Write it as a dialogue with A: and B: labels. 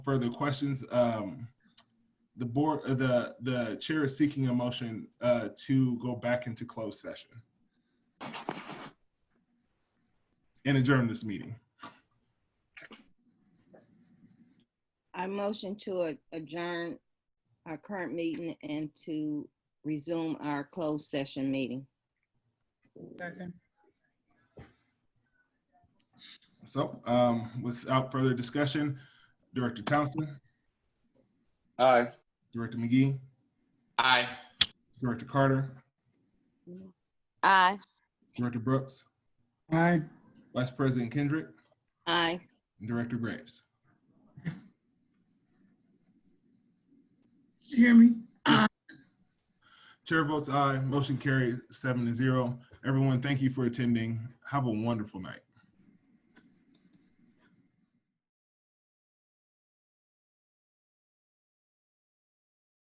A: further questions. Um, the board, uh, the, the chair is seeking a motion, uh, to go back into closed session. And adjourn this meeting.
B: I motion to a- adjourn our current meeting and to resume our closed session meeting.
C: Second.
A: So, um, without further discussion, Director Townsend,
D: Aye.
A: Director McGee,
D: Aye.
A: Director Carter,
E: Aye.
A: Director Brooks,
C: Aye.
A: Vice President Kendrick,
B: Aye.
A: and Director Graves.
C: Did you hear me?
A: Chair votes aye, motion carries seven to zero. Everyone, thank you for attending. Have a wonderful night.